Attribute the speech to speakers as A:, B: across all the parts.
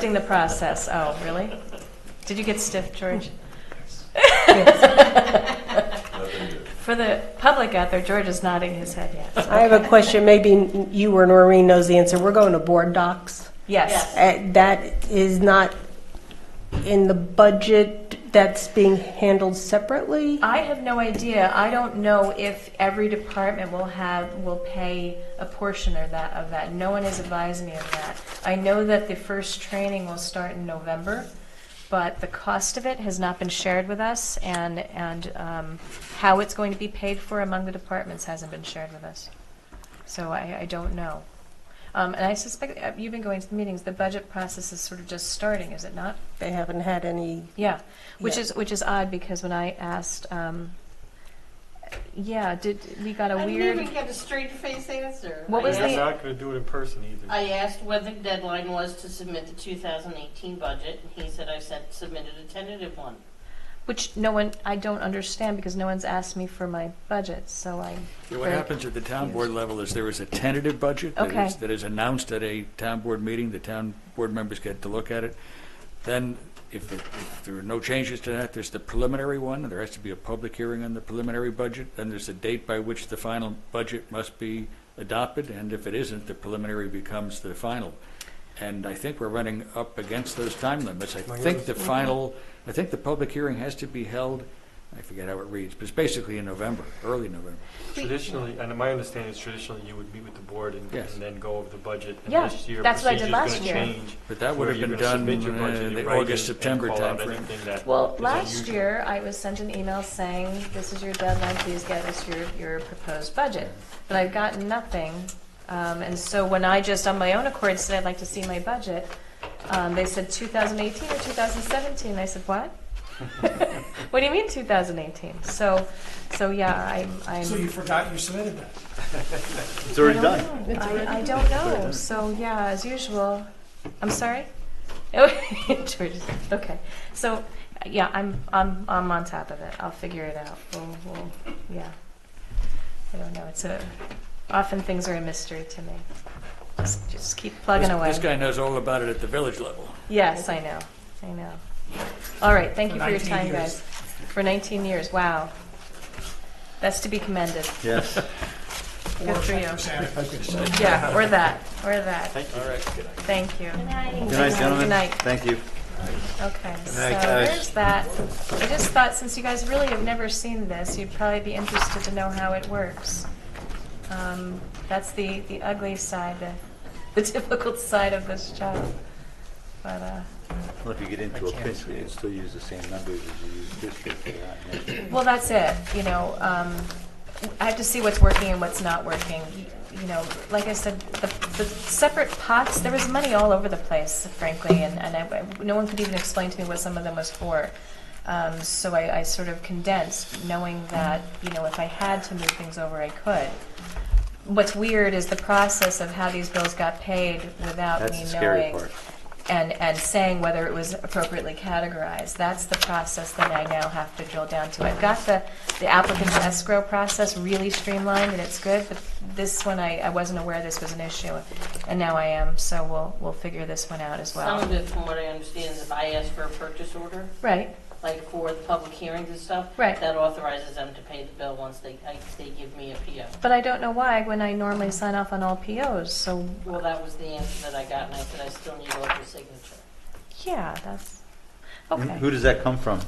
A: Testing the process. Oh, really? Did you get stiff, George? For the public out there, George is nodding his head yes.
B: I have a question, maybe you or Noreen knows the answer. We're going to board docs.
A: Yes.
B: Uh, That is not in the budget, that's being handled separately?
A: I have no idea. I don't know if every department will have, will pay a portion of that, of that. No one has advised me of that. I know that the first training will start in November, but the cost of it has not been shared with us, and, and um, how it's going to be paid for among the departments hasn't been shared with us. So I, I don't know. Um, And I suspect, uh, you've been going to the meetings, the budget process is sort of just starting, is it not?
B: They haven't had any,
A: Yeah, which
B: Yeah.
A: is which is odd because when I asked, um, yeah, did we got a
C: I
A: weird?
C: didn't even get a straight face answer.
A: What
C: I
A: was
D: And
C: asked-
D: They're
A: the-
D: not gonna do it in person either.
C: I asked when the deadline was to submit the 2018 budget, and he said I sent submitted a tentative one.
A: Which no one, I don't understand because no one's asked me for my budget, so I.
E: Yeah, What happens at the town board level is there is a tentative budget that
A: Okay.
E: is, that is announced at a town board meeting, the town board members get to look at it. Then, if there- if there are no changes to that, there's the preliminary one, and there has to be a public hearing on the preliminary budget, then there's a date by which the final budget must be adopted, and if it isn't, the preliminary becomes the final. And I think we're running up against those time limits. I
D: My
E: think the
D: goodness.
E: final, I think the public hearing has to be held, I forget how it reads, but it's basically in November, early November.
D: Traditionally, and my understanding is traditionally you would meet with the board and
E: Yes.
D: and then go over the budget. and
A: Yeah,
D: this year
A: that's what I did
D: procedure's
A: last
D: gonna
A: year.
D: change,
E: But that would
D: where
E: have
D: you're
E: been
D: gonna
E: done
D: submit your budget
E: in
D: in
E: the
D: writing
E: August,
D: and
E: September
D: call out
E: timeframe.
D: anything that
A: Well,
D: is
A: last
D: unusual.
A: year I was sent an email saying this is your deadline, please get us your your proposed budget, but I've gotten nothing. Um, and so when I just on my own accord said I'd like to see my budget, um, they said 2018 or 2017. I said what? what do you mean 2018? So, so yeah, I'm. I'm
F: So you forgot you submitted that.
G: It's already done.
A: I, I don't know. So yeah, as usual. I'm sorry. Oh, George, okay. So yeah, I'm I'm I'm on top of it. I'll figure it out. We'll, we'll, yeah. I don't know. It's a often things are a mystery to me. Just just keep plugging
E: This-
A: away.
E: This guy knows all about it at the village level.
A: Yes, I know. I know. All right. Thank
F: For
A: you for your
F: 19
A: time,
F: years.
A: guys. For 19 years. Wow. That's to be commended.
G: Yes.
A: Good for you.
F: Or Santa Cruz.
A: Yeah, or that, or that.
D: Thank you.
A: Thank you.
G: Good night, gentlemen.
A: Good night.
G: Thank you.
A: Okay, so
G: night, guys.
A: there's that. I just thought, since you guys really have never seen this, you'd probably be interested to know how it works. Um, That's the, the ugly side, the, the difficult side of this job. But, uh,
G: Well, if you get into a pinch, we can still use the same numbers as you used this year for that. and that.
A: well, that's it, you know, um, I have to see what's working and what's not working. You know, like I said, the, the separate pots, there was money all over the place, frankly, and, and I, I- no one could even explain to me what some of them was for. Um, so I, I sort of condensed, knowing that, you know, if I had to move things over, I could. What's weird is the process of how these bills got paid without
G: That's
A: me
G: the scary
A: knowing
G: part.
A: and, and saying whether it was appropriately categorized. That's the process that I now have to drill down to. I've got the, the applicant's escrow process really streamlined, and it's good, but this one, I, I wasn't aware this was an issue, and now I am, so we'll, we'll figure this one out as
C: Some of
A: well.
C: it, from what I understand, is if I ask for a purchase order,
A: Right,
C: like for the public hearings and stuff,
A: Right.
C: that authorizes them to pay the bill once they, I- they give me a PO.
A: but I don't know why, when I normally sign off on all POs, so,
C: Well, that was the answer that I got, and I said I still need local signature.
A: yeah, that's,
G: Who-
A: okay.
G: Who does that come from?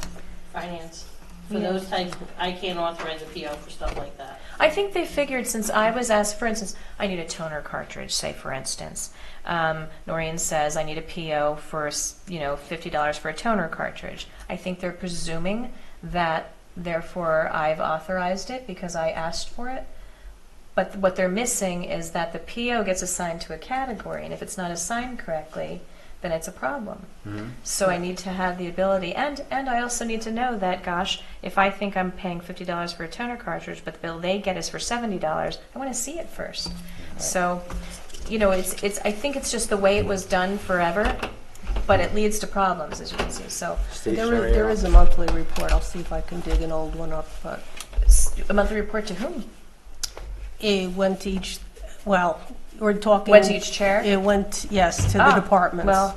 C: Finance, for
A: Yeah.
C: those types, I can't authorize a PO for stuff like that.
A: I think they figured since I was asked, for instance, I need a toner cartridge, say for instance. Um, Noreen says I need a PO for s- you know fifty dollars for a toner cartridge. I think they're presuming that therefore I've authorized it because I asked for it. But what they're missing is that the PO gets assigned to a category, and if it's not assigned correctly, then it's a problem. So I need to have the ability, and and I also need to know that, gosh, if I think I'm paying fifty dollars for a toner cartridge, but the bill they get is for seventy dollars, I want to see it first. So, you know, it's it's. I think it's just the way it was done forever, but it leads to problems, as you can see. So,
B: There
G: Stationary.
B: is, there is a monthly report, I'll see if I can dig an old one up, but
A: s- a monthly report to whom?
B: it went to each, well, we're talking.
A: Went to each chair?
B: It went, yes, to the
A: Ah,
B: departments.
A: Well,